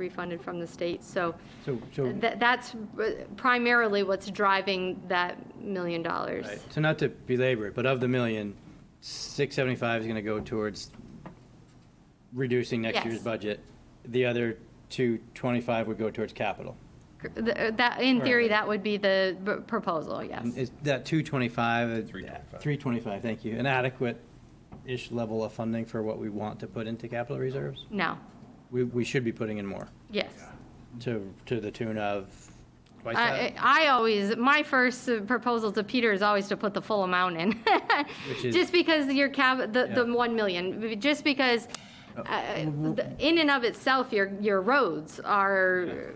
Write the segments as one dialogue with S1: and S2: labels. S1: refunded from the state. So
S2: So, so,
S1: tha- that's uh, primarily what's driving that million dollars.
S2: right. so not to belabor it, but of the million, six seventy-five is gonna go towards reducing next year's
S1: Yes.
S2: budget. The other two twenty-five would go towards capital.
S1: Th- uh, That, in theory,
S2: Right.
S1: that would be the b- proposal, yes.
S2: And Is that two twenty-five? uh,
S3: 325.
S2: Three twenty-five, thank you. An adequate-ish level of funding for what we want to put into capital reserves?
S1: No,
S2: We, we should be putting in more
S1: yes.
S2: to, to the tune of twice
S1: I,
S2: that,
S1: I always, my first uh, proposal to Peter is always to put the full amount in.
S2: which is.
S1: Just because your cap, the, the
S2: Yeah. Oh.
S1: 1 million, just because uh, the- in and of itself, your, your roads are,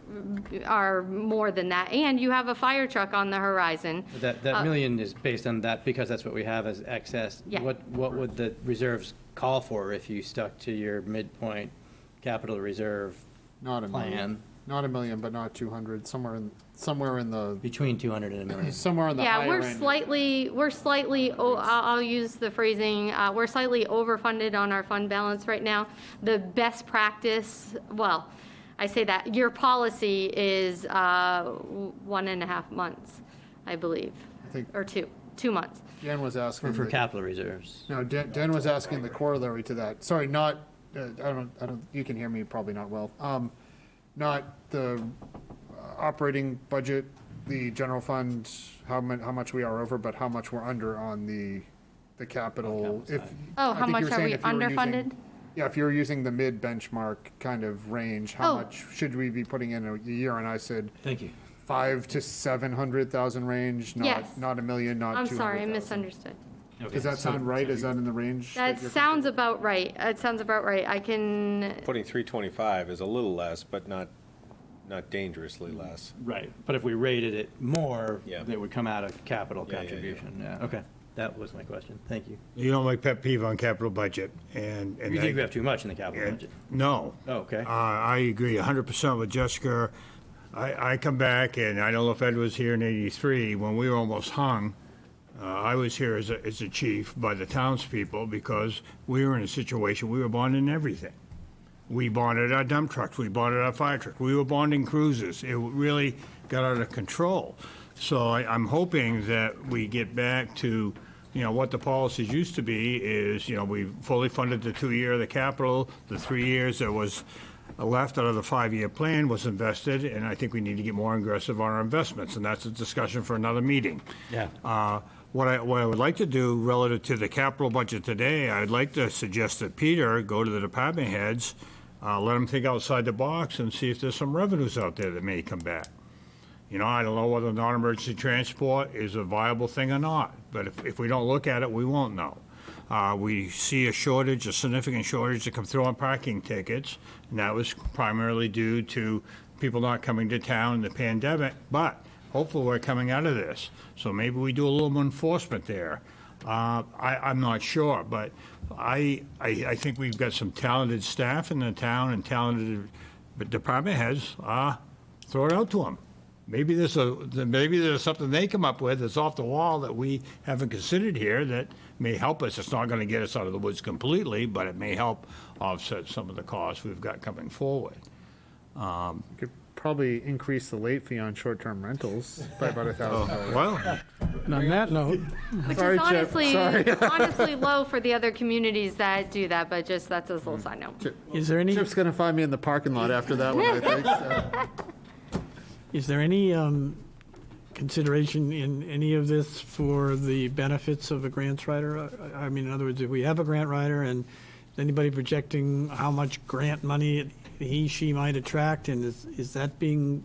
S1: are more than that. And you have a fire truck on the horizon.
S2: That, that
S1: Uh,
S2: million is based on that, because that's what we have as excess.
S1: Yeah.
S2: What, what would the reserves call for if you stuck to your midpoint capital reserve
S4: Not a
S2: plan
S4: million, not a million, but not two hundred, somewhere in, somewhere in the,
S2: between 200 and a million?
S4: somewhere in the
S1: Yeah,
S4: higher
S1: we're
S4: end.
S1: slightly, we're slightly, o- I'll I'll use the phrasing, uh, we're slightly overfunded on our fund balance right now. The best practice, well, I say that, your policy is uh, w- one and a half months, I believe,
S4: I think
S1: or two, two months.
S4: Dan was asking,
S2: For
S4: the-
S2: capital reserves.
S4: no, Dan, Dan was asking the corollary to that, sorry, not, uh, I don't, I don't, you can hear me probably not well. Um, not the uh, operating budget, the general fund, how mu, how much we are over, but how much we're under on the, the capital. If
S1: Oh, how
S4: I think you
S1: much
S4: were
S1: are
S4: saying
S1: we
S4: if you were using-
S1: underfunded?
S4: Yeah, if you're using the mid benchmark kind of range, how
S1: Oh.
S4: much should we be putting in a year? And I said,
S2: Thank you.
S4: five to seven hundred thousand range,
S1: Yes.
S4: not, not a million, not
S1: I'm
S4: two
S1: sorry, I
S4: hundred thousand.
S1: misunderstood.
S4: Does that sound right? Is that in the range?
S1: That
S4: you're-
S1: sounds about right, that sounds about right. I can,
S3: Putting 325 is a little less, but not, not dangerously less.
S2: Right, but if we rated it more,
S3: Yeah.
S2: it would come out of capital
S3: Yeah, yeah, yeah.
S2: contribution, yeah, okay. That was my question, thank you.
S5: You know my pet peeve on capital budget, and. and
S2: You think
S5: I-
S2: we have too much in the capital
S5: and-
S2: budget?
S5: No.
S2: Oh, okay.
S5: Uh, I agree hundred percent with Jessica. I, I come back, and I don't know if Ed was here in eighty-three, when we were almost hung. Uh, I was here as a, as a chief by the townspeople, because we were in a situation, we were bonding everything. We bonded our dump trucks, we bonded our fire truck, we were bonding cruisers. It really got out of control. So I, I'm hoping that we get back to, you know, what the policies used to be is, you know, we fully funded the two-year of the capital, the three years that was left out of the five-year plan was invested, and I think we need to get more aggressive on our investments, and that's a discussion for another meeting.
S2: Yeah.
S5: Uh, What I, what I would like to do relative to the capital budget today, I'd like to suggest that Peter go to the department heads, uh, let them think outside the box and see if there's some revenues out there that may come back. You know, I don't know whether non-emergency transport is a viable thing or not, but if, if we don't look at it, we won't know. Uh, we see a shortage, a significant shortage that come through on parking tickets, and that was primarily due to people not coming to town in the pandemic, but hopefully we're coming out of this. So maybe we do a little more enforcement there. Uh, I, I'm not sure, but I, I, I think we've got some talented staff in the town and talented department heads. Uh, throw it out to them. Maybe there's a, maybe there's something they come up with that's off the wall that we haven't considered here that may help us. It's not gonna get us out of the woods completely, but it may help offset some of the costs we've got coming forward.
S4: You Could probably increase the late fee on short-term rentals by about a thousand dollars.
S5: Well,
S6: On that note,
S1: which
S4: Sorry,
S1: is
S4: Chip,
S1: honestly,
S4: sorry.
S1: honestly low for the other communities that do that, but just that's a little
S4: Mm-hmm.
S1: side note.
S6: is there any,
S4: Chip's gonna find me in the parking lot after that one, I think, so.
S6: is there any um, consideration in any of this for the benefits of a grants writer? I- I mean, in other words, if we have a grant writer and anybody projecting how much grant money he, she might attract, and is, is that being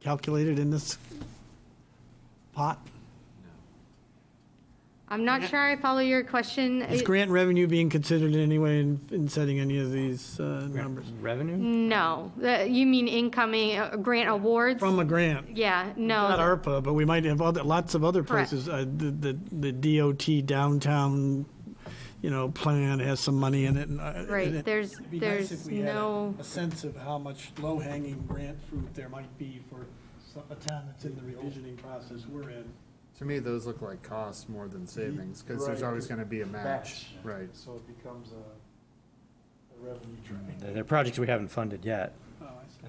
S6: calculated in this pot?
S1: I'm not sure I follow your question.
S6: Is
S1: It-
S6: grant revenue being considered in any way in, in setting any of these uh, numbers?
S2: Revenue?
S1: No, Uh, you mean incoming uh, grant awards?
S6: From a grant?
S1: Yeah,
S6: Not
S1: no,
S6: ARPA, but we might have other, lots of other
S1: Correct.
S6: places. Uh, The, the the DOT downtown, you know, plan has some money in it and. uh,
S1: Right,
S6: and it-
S1: there's-
S6: It'd be nice
S1: there's
S6: if we had a-
S1: no-
S6: A sense of how much low-hanging grant fruit there might be for some- a town that's in the revisioning process we're in.
S4: To me, those look like costs more than savings, because there's
S6: Right.
S4: always gonna be a match,
S6: Match.
S4: right?
S6: So it becomes a revenue
S2: There there are projects we haven't funded yet.
S6: Oh,